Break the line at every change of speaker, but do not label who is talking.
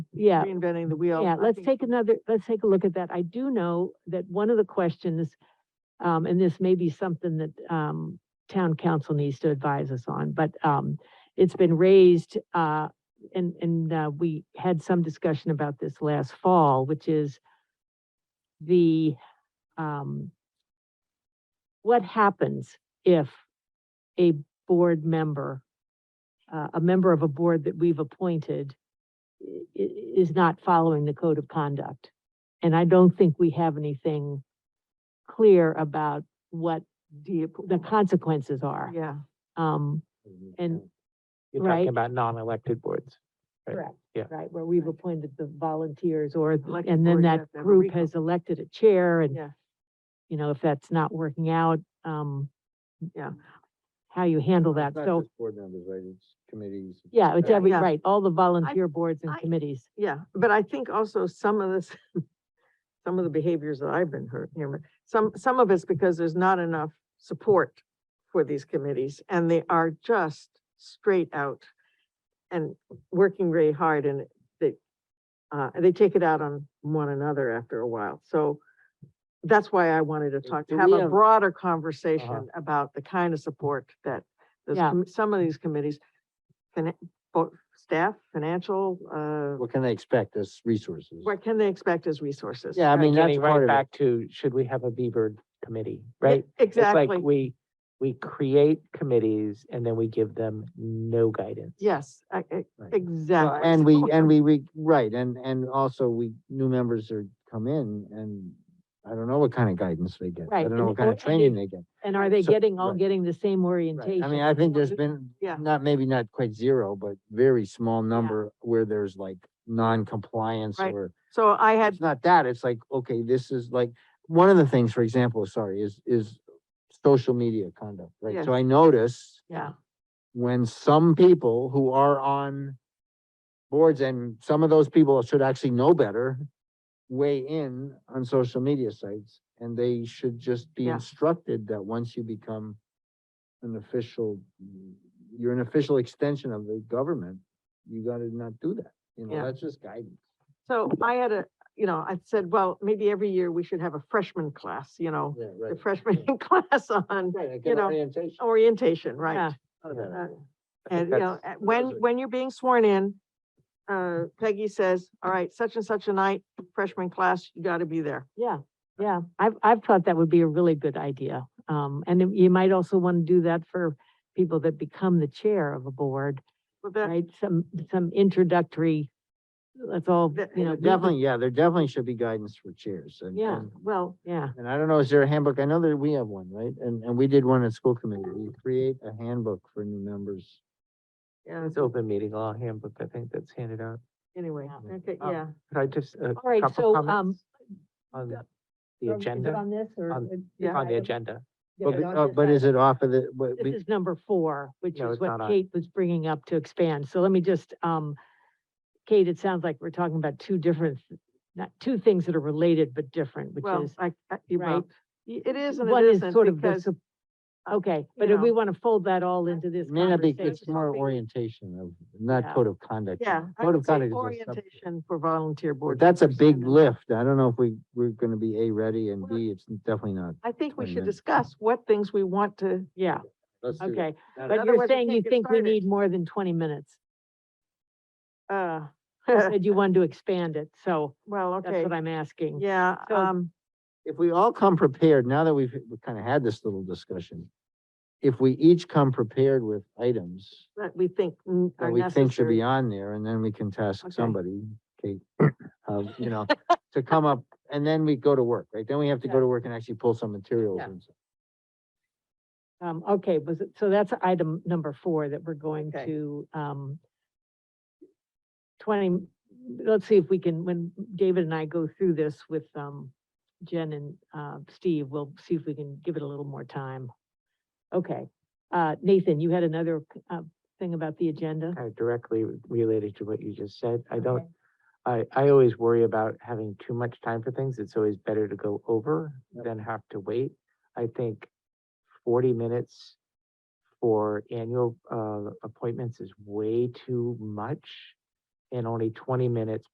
yeah,
reinventing the wheel.
yeah,
I
let's
think-
take another, let's take a look at that. I do know that one of the questions, um, and this may be something that, um, town council needs to advise us on, but, um, it's been raised, uh, and, and, uh, we had some discussion about this last fall, which is the, um, what happens if a board member, uh, a member of a board that we've appointed i- i- is not following the code of conduct. And I don't think we have anything clear about what
Deep.
the consequences are.
Yeah,
Um, and,
Mm-hmm. You're
right.
talking about non-elected boards. Right,
correct.
yeah.
Right, where we've appointed the volunteers or,
Elected
and then
boards
that
have to have a
group
recall.
has elected a chair and,
yeah.
you know, if that's not working out, um,
Yeah.
how you handle that.
It's not
So,
just Board members, right, it's committees.
yeah, it's
Yeah.
every,
Yeah.
right, all the volunteer boards and
I-
committees.
Yeah, but I think also some of this, some of the behaviors that I've been heard, hearing, some, some of it's because there's not enough support for these committees, and they are just straight out and working very hard, and they, uh, they take it out on one another after a while, so that's why I wanted to talk,
do
have
we
a
have- Uh-huh.
broader conversation about the kind of support that those
Yeah.
commi- some of these committees, finan- both staff, financial, uh,
What can they expect as resources?
what can they expect as resources?
Yeah, I mean, that's
Getting
part
right
of it.
back to, should we have a Beaver committee,
Yeah,
right? It's
Exactly,
like we, we create committees and then we give them no guidance.
yes, I- I-
Right.
exactly.
Well, And we, and we, we, right, and, and also we, new members are, come in and I don't know what kind of guidance they get. I
Right,
don't
and-
know what
or-
kind of
and they-
training they get.
And are they
So-
getting, all
right.
getting the same orientation?
I mean, I think there's
Well,
been,
yeah.
not, maybe not quite zero, but very small number where there's like non-compliance
Right.
or
So I had,
it's not that, it's like, okay, this is like, one of the things, for example, sorry, is, is social media conduct, right? So I notice
yeah,
when some people who are on boards and some of those people should actually know better weigh in on social media sites and they should just be
Yeah.
instructed that once you become an official, you're an official extension of the government, you gotta not do that. You
Yeah.
know, that's just guidance.
so I had a, you know, I said, well, maybe every year we should have a freshman class, you know,
Yeah,
the
right.
freshman class on
Right, like
you
an
know,
orientation.
orientation,
Yeah.
right?
Not a bad
uh,
idea. I
And,
think
you know,
that's-
uh, when,
those are-
when you're being sworn in, uh, Peggy says, all right, such and such a night, freshman class, you gotta be there.
Yeah, yeah, I've, I've thought that would be a really good idea. Um, and then you might also want to do that for people that become the chair of a board,
But that,
right? Some, some introductory, let's all,
That-
you know,
There
do the-
Definitely, yeah, there definitely should be guidance for chairs and.
Yeah.
and-
well,
yeah,
And I don't know, is there a handbook? I know that we have one, right? And, and we did one at school committee. We create a handbook for new members.
yeah,
It's open meeting law handbook, I think that's handed out.
anyway,
Yeah.
okay,
Um,
yeah.
Could I just, a
right,
couple
so, um,
comments? On
uh,
the agenda,
On this or?
on-
yeah,
on the agenda.
But, we- uh, but is it off of the, but
This
we,
is number four, which
No,
is
it's not
what
on.
Kate was bringing up to expand. So let me just, um, Kate, it sounds like we're talking about two different, not two things that are related but different, which
Well,
is.
I, I, you
uh, right?
well, y- it is and
One
it
is
isn't
sort of the
because
sup- Okay, but
you
if we
know,
want to fold that all into this
it may not be, it's
conversation.
more
something-
orientation of,
Yeah.
not code of conduct.
Yeah, I
Code
would
of
say
conduct is a sub-
orientation for volunteer
but
board.
That's a
members,
big
and
lift. I don't know if we, we're gonna be A, ready, and
Well-
B, it's definitely not.
I think we
Wait a
should
minute.
discuss what things we want to,
Yeah,
Let's do
okay.
that.
But you're
Otherwise we
saying
can't
you
get
think we
started.
need more than twenty minutes,
uh,
and you wanted to expand it, so
well,
that's
okay,
what I'm asking.
yeah,
So-
um,
if we all come prepared, now that we've, we kind of had this little discussion, if we each come prepared with items
that we think n-
that
are
we think should be
necessary.
on there, and then we can task
Okay.
somebody, Kate, um, you know, to come up, and then we go to work, right? Then we have to
Yeah.
go to work and actually pull some materials
Yeah.
and stuff.
Um, okay, was it, so that's item number four that we're going
Okay.
to, um, twenty, let's see if we can, when David and I go through this with, um, Jen and, uh, Steve, we'll see if we can give it a little more time. Okay, uh, Nathan, you had another, uh, thing about the agenda?
kind of uh, directly related to what you just said. I
Okay.
don't, I, I always worry about having too much time for things. It's always better to go over
Yep.
than have to wait. I think forty minutes for annual, uh, appointments is way too much. And only twenty minutes